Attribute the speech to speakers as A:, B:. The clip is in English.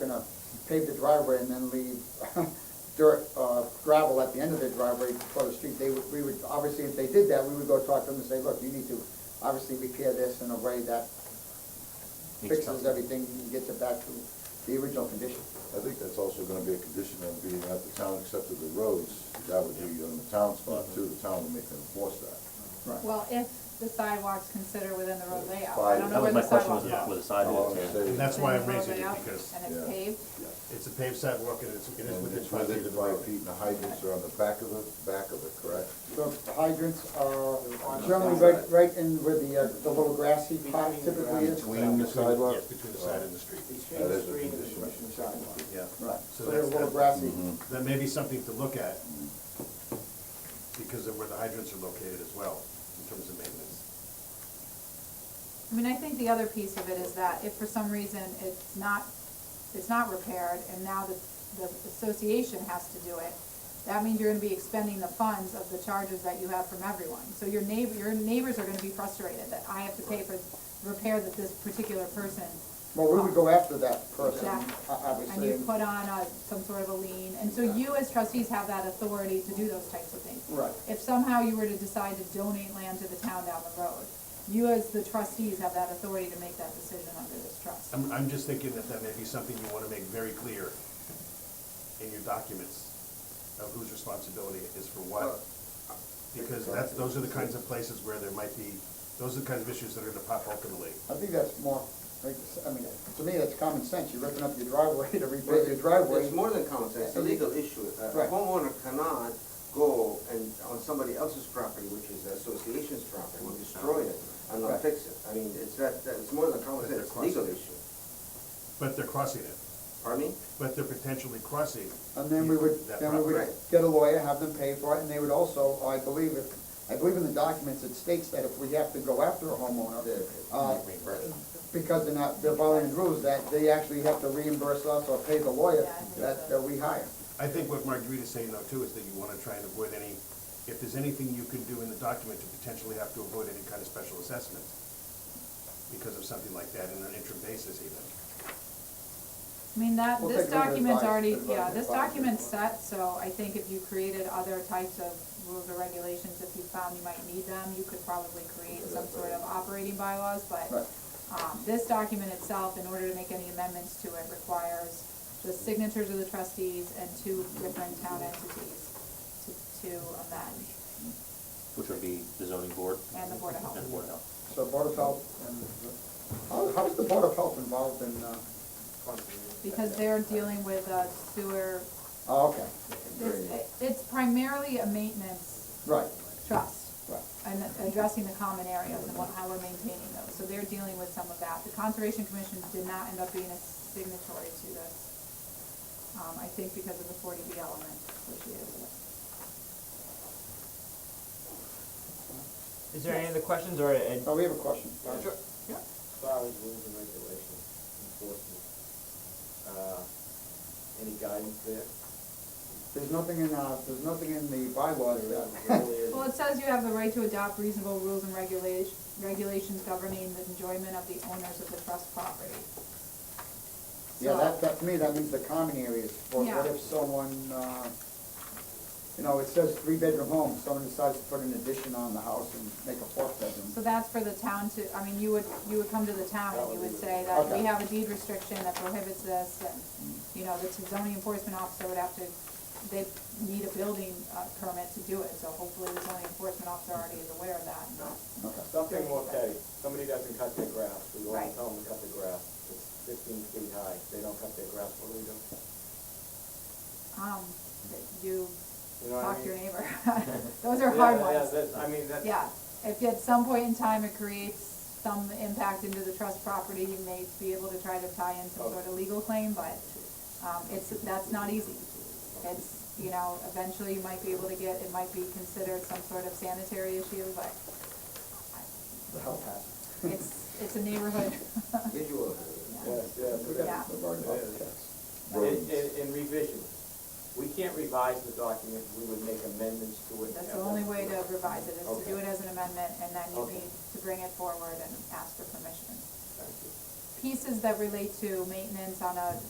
A: gonna pave the driveway and then leave dirt, uh, gravel at the end of the driveway for the street, they would, we would, obviously, if they did that, we would go talk to them and say, look, you need to obviously repair this in a way that fixes
B: Makes sense.
A: everything and gets it back to the original condition.
C: I think that's also gonna be a condition of being at the town accepted the roads, that would be on the town's part too, the town would make them enforce that.
A: Right.
D: Well, if the sidewalks consider within the road layout, I
C: Five.
D: don't
B: That
D: know where
B: was my
D: the
B: question,
D: sidewalks
B: was
D: go.
B: with the
C: Oh,
B: sidewalks,
C: I'm
B: yeah.
C: saying-
E: And that's why I'm
D: Within the
E: raising
D: road
E: it,
D: layout,
E: because
D: And it's
C: Yeah.
D: paved,
E: it's a paved sidewalk and it's, it is
C: And
E: within
C: it's
E: five feet
C: within
E: of the
C: five
E: road.
C: feet and the hydrants are on the back of the, back of it, correct?
A: The hydrants are generally right, right in where the, uh, the little grassy pot typically is.
C: Between the sidewalk?
E: Yes, between the side and the street.
C: That is a condition.
E: Yeah.
A: Right, so
E: So
A: they're a
E: that's-
A: little grassy.
B: Mm-hmm.
E: That may be something to look at, because of where the hydrants are located as well, in terms of maintenance.
D: I mean, I think the other piece of it is that if for some reason it's not, it's not repaired, and now the, the association has to do it, that means you're gonna be expending the funds of the charges that you have from everyone. So your neighbor, your neighbors are gonna be frustrated that I have to pay for repair that this particular person.
A: Well, we would go after that person, o-
D: Exactly. And
A: obviously.
D: you put on a, some sort of a lien, and so you as trustees have that authority to do those types of things.
A: Right.
D: If somehow you were to decide to donate land to the town down the road, you as the trustees have that authority to make that decision under this trust.
E: I'm, I'm just thinking that that may be something you wanna make very clear in your documents, of whose responsibility it is for what. Because that's, those are the kinds of places where there might be, those are the kinds of issues that are gonna pop ultimately.
A: I think that's more, like, I mean, to me, that's common sense, you're ripping up your driveway to rebuild your driveway.
F: It's more than common sense, it's a legal issue. A
A: Right.
F: homeowner cannot go and, on somebody else's property, which is the association's property, and destroy it and
A: Right.
F: not fix it. I mean, it's that, that- it's more than common sense, it's a legal issue.
E: But they're crossing it,
F: Pardon me?
E: but they're potentially crossing.
A: And then we would,
E: that
A: then we would
F: property.
A: get a lawyer, have them pay for it, and they would also, I believe, if, I believe in the documents, it states that if we have to go after a homeowner, uh, because they're not, they're violating rules, that they actually have to reimburse us or pay the lawyer
D: Yeah, I think
A: that,
D: so.
A: that we hire.
E: I think what Margarita's saying though too is that you wanna try and avoid any, if there's anything you can do in the document to potentially have to avoid any kind of special assessment because of something like that in an interim basis even.
D: I mean, that,
A: We'll
D: this
A: take it under
D: document's
A: advi-
D: already,
A: advi-
D: yeah, this
A: advisory.
D: document's set, so I think if you created other types of rules or regulations, if you found you might need them, you could probably create some sort of operating bylaws, but
A: Right.
D: Um, this document itself, in order to make any amendments to it, requires the signatures of the trustees and two different town entities to, to amend,
B: which would be the zoning board.
D: and the Board of Health.
B: And the Board of Health.
A: So Board of Health and, how, how's the Board of Health involved in, uh,
D: Because they're dealing with a sewer,
A: oh, okay,
D: it's, it's primarily a maintenance
A: right,
D: trust.
A: right.
D: and addressing the common areas and what, how we're maintaining those, so they're dealing with some of that. The Conservation Commission did not end up being a signatory to this, um, I think because of the forty B element associated with it.
G: Is there any other questions or? uh,
A: Oh, we have a question.
G: Sure. Yeah.
H: far as rules and regulations enforcement, uh, any guidance there?
A: There's nothing in, uh, there's nothing in the bylaws that,
H: Really is-
D: Well, it says you have the right to adopt reasonable rules and regulation, regulations governing the enjoyment of the owners of the trust property.
A: yeah,
D: So-
A: that, that, to me, that means the common areas, or what
D: Yeah.
A: if someone, uh, you know, it says three-bedroom home, someone decides to put an addition on the house and make a fourth
D: So
A: bedroom.
D: that's for the town to, I mean, you would, you would come to the town and you would say that we have a deed restriction that prohibits this, and, you know, the zoning enforcement officer would have to, they need a building, uh, permit to do it, so hopefully the zoning enforcement officer already is aware of that.
A: Okay.
H: Something, okay, somebody doesn't cut their grass, we
D: Right.
H: won't tell them to cut their grass, it's fifteen feet high, they don't cut their grass, what do we do?
D: Um, that you
H: You know what I
D: talk to
H: mean?
D: your neighbor, those are hard
H: Yeah,
D: ones.
H: yeah, that's- I mean, that's.
D: Yeah, if at some point in time it creates some impact into the trust property, you may be able to try to tie in some sort of legal claim, but, um, it's, that's not easy. It's, you know, eventually you might be able to get, it might be considered some sort of sanitary issue, but
A: The health hazard.
D: it's, it's a neighborhood.
F: Visual.
H: Yes, yes.
A: We gotta-
D: Yeah.
A: we're worried about
H: It is.
A: cats.
H: And, and- and revisions, we can't revise the document, we would make amendments to it. and
D: That's the
H: have them
D: only way to
H: approved.
D: revise it, is to do
H: Okay.
D: it as an amendment, and then you
H: Okay.
D: need to bring it forward and ask for permission.
H: Thank you.
D: Pieces that relate to maintenance on a